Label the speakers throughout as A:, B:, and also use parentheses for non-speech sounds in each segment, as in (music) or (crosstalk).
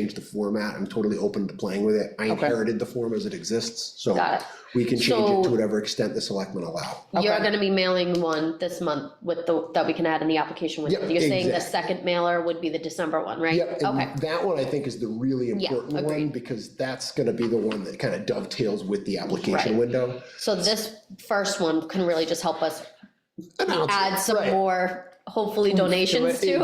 A: change the format. I'm totally open to playing with it. I
B: Okay.
A: inherited the form as it exists, so
C: Got it.
A: we can change it to
C: So-
A: whatever extent the selectmen allow.
C: You're
B: Okay.
C: gonna be mailing one this month with the, that we can add in the application window.
A: Yep,
C: You're saying the
A: exact.
C: second mailer would be the December one, right?
A: Yep,
C: Okay,
A: and that one I think is the really
C: Yeah,
A: important one,
C: agreed.
A: because that's gonna be the one that kind of dovetails with the application
C: Right.
A: window.
C: so this first one can really just help us
A: Announce it,
C: add some
A: right.
C: more, hopefully donations to.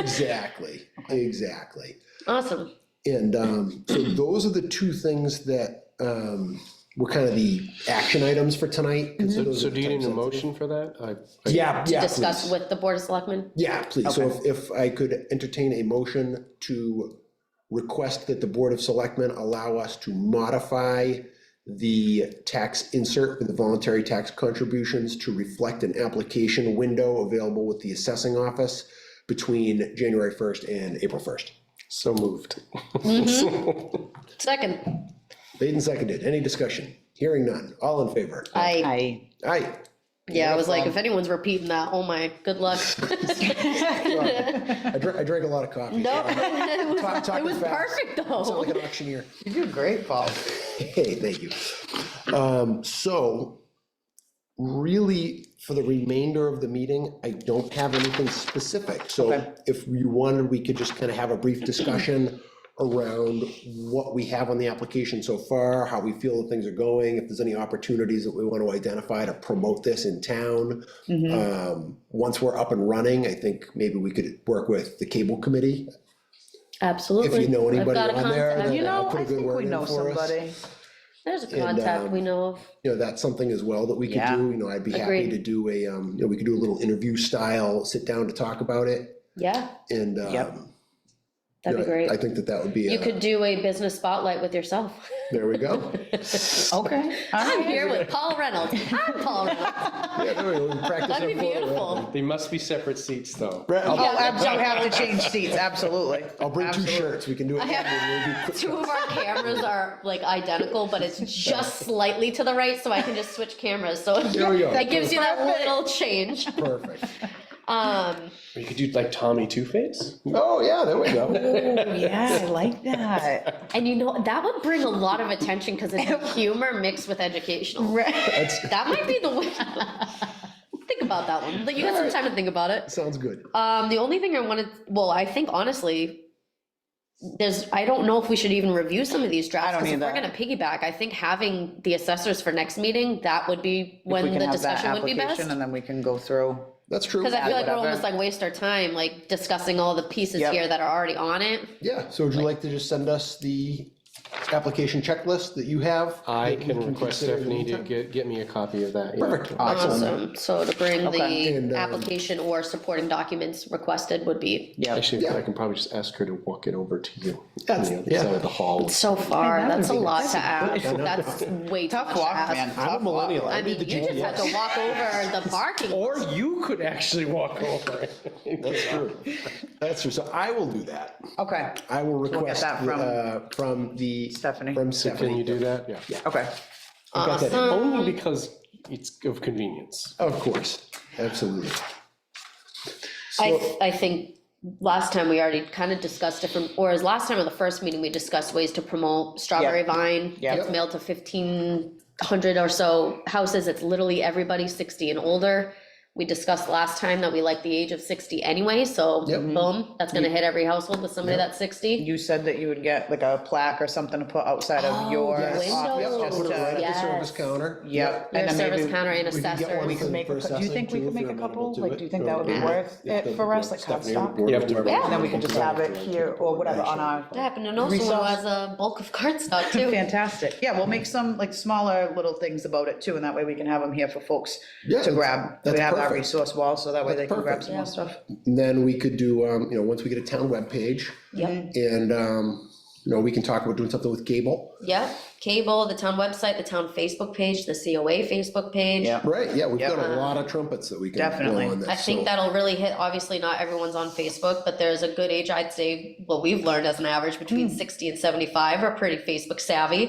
A: Exactly, exactly.
C: (laughs) Awesome.
A: And um, so those are the two things that um, were kind of the action items for tonight. and
D: So
A: those
D: so
A: are
D: do you
A: time
D: need a
A: sensitive.
D: motion for that? I- I-
A: Yeah, yeah,
C: Mm-hmm. Discuss
A: please.
C: with the Board of Selectmen.
A: Yeah, please. So if, if I could entertain a motion to request that the Board of Selectmen allow us to modify the tax insert for the voluntary tax contributions to reflect an application window available with the assessing office between January 1st and April 1st.
D: So moved.
C: Second,
A: Made and seconded. Any discussion? Hearing none. All in favor?
C: I,
B: I,
A: Aye.
C: yeah, I was like, if anyone's repeating that, oh my,
A: (laughs)
C: good luck.
A: I drank, I drank a lot of coffee.
C: No,
A: so I'm
C: it was-
A: Talk- talking
C: it was
A: fast.
C: perfect
A: Sound (laughs) like
C: though.
A: an auctioneer.
B: you do great, Paul.
A: Hey, thank you. Um, so really, for the remainder of the meeting, I don't have anything specific. So
B: Okay.
A: if you wanted, we could just kind of have a brief discussion around what we have on the application so far, how we feel that things are going, if there's any opportunities that we want to identify to promote this in town.
B: Mm-hmm.
A: Um, once we're up and running, I think maybe we could work with the cable committee.
C: Absolutely.
A: If you know
C: I've
A: anybody
C: got a
A: on there,
C: contact.
A: then-
B: You know,
A: Put a
B: I
A: good
B: think
A: word
B: we
A: in
B: know
A: for us.
B: somebody.
C: There's a
A: and,
C: contact
A: um,
C: we know of.
A: you know, that's something as well that we could
B: Yeah.
A: do, you know, I'd be happy
C: Agreed.
A: to do a, um, you know, we could do a little interview style, sit down to talk about it,
C: Yeah,
A: and, um.
B: Yep.
A: you
C: that'd be
A: know, I
C: great.
A: think that that would be,
C: You
A: a-
C: could do a business spotlight with yourself.
A: there we go.
B: Okay.
C: (laughs) I'm here with Paul Reynolds. (laughs) I'm Paul Reynolds.
A: Yeah, there we go. We practice
C: That'd be
A: our flow, right?
C: beautiful.
D: They must be separate seats, though.
A: Brett, I'll,
B: Oh, absolutely, have to change seats, absolutely.
A: I'll bring two shirts, we can
C: (laughs)
A: do it.
C: have- Two of our cameras are like identical, but it's (laughs) just slightly to the right, so I can just switch cameras. So
A: There we go.
C: it gives you (laughs) that
B: Perfect.
C: little change.
A: Perfect.
C: Um,
D: Or you could do like Tommy Two Face?
A: Oh, yeah, there we go.
B: Yeah, I like that.
C: and you know, that would bring a lot of attention because it's (laughs) humor mixed with educational.
B: Right.
A: That's,
C: That might be the way. (laughs) Think about that one. You got some time to think about it.
A: sounds good.
C: Um, the only thing I wanted, well, I think honestly, there's, I don't know if we should even review some of these drafts.
B: I don't
C: 'cause if We're
B: either.
C: gonna piggyback. I think having the assessors for next meeting, that would be
B: If we
C: when
B: can
C: the
B: have that
C: discussion would be
B: application
C: best.
B: And then we can go through.
A: That's true.
C: Cause I feel like we're
B: whatever.
C: almost like waste our time, like discussing all the pieces
B: Yep.
C: here that are already on it.
A: Yeah, so would you like to just send us the application checklist that you have?
D: I
A: that we
D: can request
A: consider in the
D: Stephanie to
A: meantime?
D: get, get me a copy of that. yeah.
A: Perfect, excellent.
C: Awesome. Um, So to bring
B: Okay.
A: And,
C: the
A: um,
C: application or supporting documents requested would be
B: Yep.
D: Actually,
A: Yeah.
D: I can probably just ask her to walk it over to you. on
A: That's-
D: the other
A: yeah.
D: side of the hall.
C: so far.
B: that
C: That's a
B: would be-
C: lot
B: that's
C: to
B: a
C: ask.
B: good-
C: That's way too much
B: Tough
C: to
B: walk,
C: ask.
A: I'm
B: man.
A: a
B: Tough walk.
A: millennial.
C: I mean,
A: need
C: you
A: the
C: just
A: GPS.
C: have to walk
B: (laughs)
C: over the parking.
D: Or you could actually walk over it.
A: That's true. That's true. So I will do that.
B: Okay,
A: I will request
B: that from-
A: uh, from the.
B: Stephanie.
A: From
D: Can you
A: Stephanie.
D: do that? Yeah.
B: okay. Oh,
A: I've got that in.
D: Only because it's of convenience.
A: Of course, absolutely.
C: I, I think last time we already kind of discussed different, or is last time or the first meeting, we discussed ways to promote Strawberry
B: Yep.
C: Vine.
B: Yep.
C: It's mailed to fifteen hundred or so houses. It's literally everybody sixty and older. We discussed last time that we like the age of sixty anyway, so
A: Yep.
C: boom, that's gonna hit every household with somebody that's sixty.
B: You said that you would get like a plaque or something to put outside
C: Oh,
B: of your
C: the
B: office,
C: window.
B: just
A: Put it right
B: to.
A: at the service
C: Yes.
A: counter.
B: Yep.
C: Your
B: and then
C: service
B: maybe
C: counter and
A: we could get
C: assessor.
A: one
B: We
A: for
B: could make, a
A: the
B: cou- do you
A: assessing,
B: think we
A: too, if
B: could make
A: they're
B: a
A: amenable
B: couple?
A: to
B: Like,
A: it.
B: do you think
A: Go
B: that would be
A: to-
B: worth
A: Yeah.
B: it for us, like
A: Stephanie would
B: Comstock?
A: board
D: Yeah.
A: with whoever
C: Yeah.
A: wants
B: And then we
A: to
B: could just
A: do
B: have
A: that.
B: it here or whatever on our.
C: That happened in also
B: Resolve.
C: as a bulk of cardstock too.
B: Fantastic. (laughs) Yeah, we'll make some like smaller little things about it too, and that way we can have them here for folks
A: Yeah,
B: to
A: that's-
B: grab. We
A: that's
B: have our
A: perfect.
B: resource wall, so that way they
A: That's
B: can grab
A: perfect.
B: some more stuff.
A: And Then we could do, um, you know, once we get a town webpage,
C: Yep,
A: and, um, you know, we can talk about doing something with Gable.
C: yep. Cable, the town website, the town Facebook page, the COA Facebook page.
B: Yeah.
A: Right, yeah, we've got a
C: Yeah.
A: lot of trumpets that we can. blow
B: Definitely.
A: on this,
C: I think
A: so-
C: that'll really hit, obviously, not everyone's on Facebook, but there's a good age, I'd say, what we've learned as an average, between sixty and seventy-five are pretty Facebook savvy.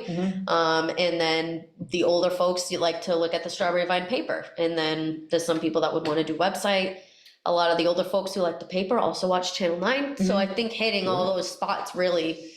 C: Um, and then the older folks, you like to look at the Strawberry Vine paper, and then there's some people that would wanna do website.
A: Mm-hmm.
C: A lot of the older folks who like the paper also watch Channel Nine, so I think hitting all those spots really